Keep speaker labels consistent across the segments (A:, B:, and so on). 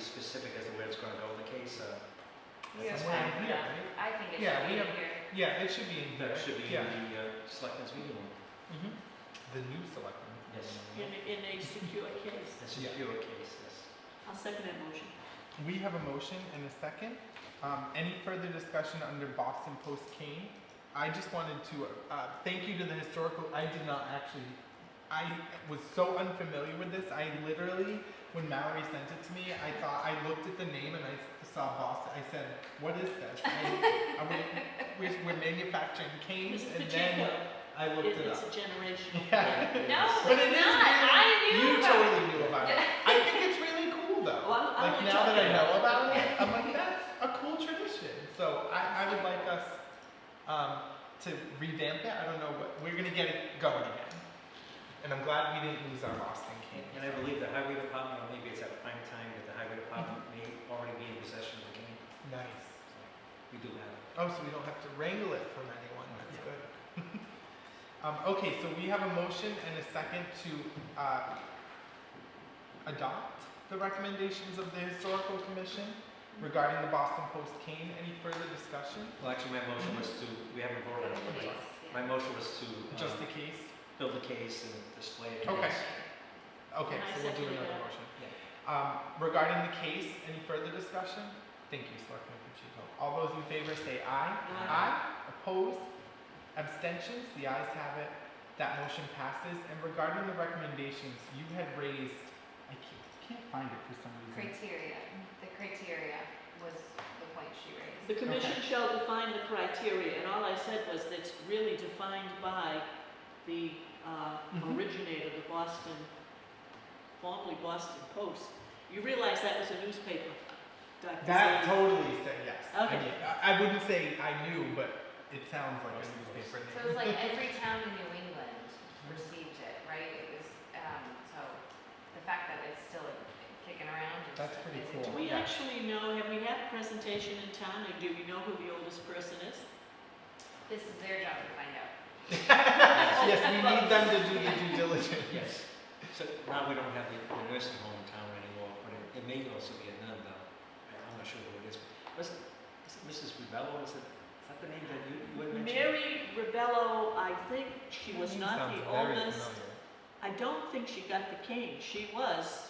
A: uh,
B: He has
C: Somewhere
B: one
C: in
B: here,
C: here,
B: I think it should
C: Yeah,
B: be
C: we
B: in
C: have-
B: here.
C: Yeah, it should be in here.
A: That should be in
C: Yeah.
A: the uh, selectmen's meeting room.
C: Mhm. The new selectman.
A: Yes.
D: in, in a secure case.
A: That's
C: Yeah.
A: a pure case, yes.
D: I'll second that motion.
C: We have a motion and a second. Um, any further discussion under Boston Post Kane? I just wanted to, uh, thank you to the historical, I did not actually, I was so unfamiliar with this, I literally, when Mallory sent it to me, I thought, I looked at the name and I s- saw Boston, I said, what is this? I- I went, we're, we're manufacturing canes,
D: Mrs.
C: and
D: Pacheco,
C: then I
D: it-
C: looked it
D: it's
C: up.
D: a generational.
C: Yeah.
B: No,
C: But it
B: it's
C: is
B: not,
C: really-
B: I knew
C: You
B: about it.
C: totally knew about it. I think it's really cool though.
D: Well, I'm-
C: like
D: I'm only
C: now that I
D: joking.
C: know about it, I'm like that's a cool tradition. So I, I would like us um, to revamp it. I don't know what we're gonna get it going again. And I'm glad we didn't lose our Boston King.
A: And I believe the highway department, or maybe it's at prime time, that the highway department may already be in possession of the cane.
C: Nice.
A: We do have it.
C: Oh, so we don't have to wrangle it from anyone. That's good. um, okay, so we have a motion and a second to uh, adopt the recommendations of the historical commission regarding the Boston Post cane. Any further discussion?
A: Well, actually, my motion was to, we haven't
B: Go
A: voted
B: to
A: on
B: the
A: it.
B: base,
A: My
B: yeah.
A: motion was to
C: Just
A: um,
C: the case.
A: build a case and display it.
C: Okay.
A: Yes.
C: Okay,
D: And I
C: so we'll do
D: seconded
C: another
D: that.
C: motion. Um, regarding the case, any further discussion? Thank you, Selectman Pacheco. All those in favor say aye.
D: Aye.
C: Opposed? Abstentions? The ayes have it. That motion passes. And regarding the recommendations, you had raised, I can't, can't find it for some reason.
B: Criteria, the criteria was the point she raised.
D: The commission shall define the criteria, and all I said was that's really defined by the uh,
C: Mhm.
D: originator, the Boston, formerly Boston Post. You realize that was a newspaper. Dr.
C: That
D: Zane.
C: totally said yes. I
D: Okay.
C: mean, I, I wouldn't say I knew, but it sounds like a newspaper
B: So it was
C: name.
B: like every town in New England received it, right? It was, um, so the fact that it's still kicking around is.
C: That's pretty
B: is
C: cool.
D: Do we
C: Yeah.
D: actually know, have we had a presentation in town, or do we know who the oldest person is?
B: This is their job to find out.
C: Yes, we need them to do the due diligence.
A: Yes. So now we don't have the the nursing home in town anymore, but it- it may also be a nun though. I- I'm not sure who it is. Was, is it Mrs. Ribello? Is it, is that the name that you, you had mentioned?
D: Mary Rebello, I think she was
C: Name
D: not
C: sounds
D: the
C: very
D: oldest.
C: familiar.
D: I don't think she got the cane. She was,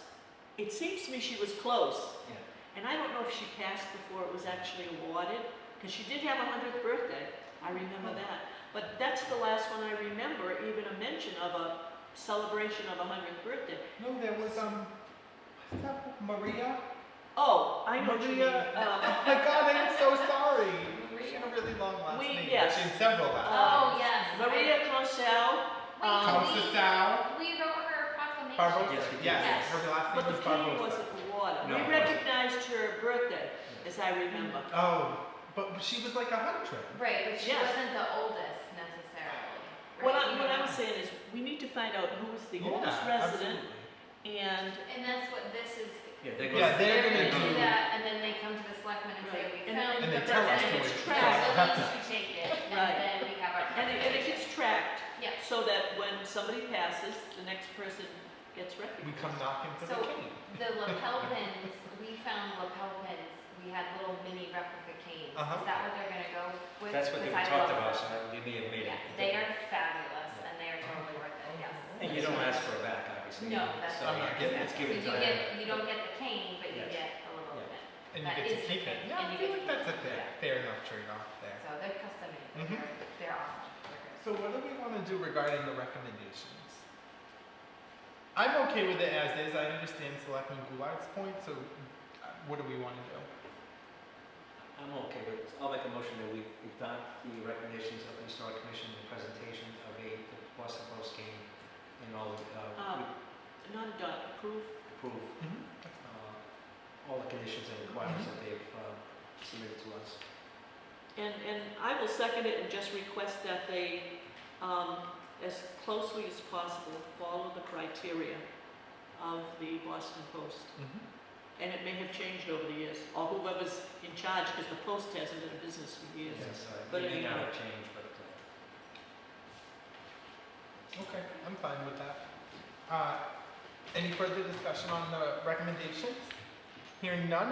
D: it seems to me she was close.
A: Yeah.
D: And I don't know if she passed before it was actually awarded, because she did have a hundredth birthday. I remember that. But that's the last one I remember, even a mention of a celebration of a hundredth birthday.
C: No, there was um, what's that Maria?
D: Oh, I know what you mean.
C: Maria.
D: Um,
C: Oh my God, I'm so sorry.
B: Maria.
C: She had a really long last
D: We-
C: name.
D: yes.
C: She's several last
B: Oh, yes.
D: Maria Cosell,
C: names.
D: um,
B: Wait,
C: Countess Al
B: we, we wrote her proclamation.
C: Barbosa.
A: Yes, we
C: Yes,
A: did.
B: Yes.
C: her last name
D: but the
C: was
D: cane
C: Barbosa.
D: wasn't
A: No,
D: awarded.
A: it
D: We
A: wasn't.
D: recognized her birthday, as I remember.
C: Oh, but she was like a hundred.
B: Right, but she
D: Yes.
B: wasn't the oldest necessarily. right?
D: What I,
B: You
D: what I'm
B: know?
D: saying is, we need to find out who was the oldest
C: yeah,
D: resident
C: absolutely.
D: and
B: And that's what this is.
A: Yeah, they're
C: Yeah,
A: gonna-
C: they're gonna
A: do-
B: that, and then they come to the selectmen and say,
D: Right.
B: we
D: And
B: found.
D: then-
C: And they
B: the
C: tell us
B: person."
C: who
D: it's
C: it is.
D: trash.
B: So
C: Have
B: at
C: to-
B: least you take it, and
D: Right.
B: then we have our.
D: And it, and it gets tracked,
B: Yeah,
D: so that when somebody passes, the next person gets
C: We
D: recognized.
C: come knocking for
B: So-
C: the king.
B: the lapel pins, we found lapel pins, we had little mini replica canes.
C: Uh-huh.
B: Is that what they're gonna go with?
A: That's what they
B: Because I
A: talked
B: love
A: about, so
B: them.
A: they may have made
B: Yeah,
A: it.
B: they are fabulous, and they are totally worth it, yes.
A: And you don't ask for it back, obviously.
B: No, that's.
A: So
C: I'm not
A: it's- it's
B: that's-
A: given
B: so
A: time.
B: You get, you don't get the cane, but you
A: Yes.
B: get a little
A: Yeah.
B: bit.
C: And
B: That
C: you
B: is
C: get to
B: the
C: take it.
B: king,
C: Yeah,
B: and
C: I
B: you
C: feel
B: get
C: like
B: to
C: that's a
B: take it,
C: fair,
B: yeah.
C: fair enough trade off there.
B: So they're custom made,
C: Mhm.
B: they're, they're awesome. They're great.
C: So what do we want to do regarding the recommendations? I'm okay with it as is. I understand Selectman Goulart's point, so uh, what do we want to do?
A: I'm okay with it. I'll make a motion that we adopt the recommendations of the historic commission, the presentation of a the Boston Post game, and all, uh,
D: Um, Not a dot, approve,
A: we approve
C: Mm-hmm. That's fine.
A: uh, all the conditions and requirements that they've uh, submitted to us.
D: and, and I will second it and just request that they, um, as closely as possible, follow the criteria of the Boston Post.
C: Mm-hmm.
D: And it may have changed over the years, or whoever's in charge, because the Post hasn't been a business for years.
A: Yes, uh,
D: But
A: it may
D: anyhow.
A: not have changed, but uh,
C: Okay, I'm fine with that. Uh, any further discussion on the recommendations? Hearing none,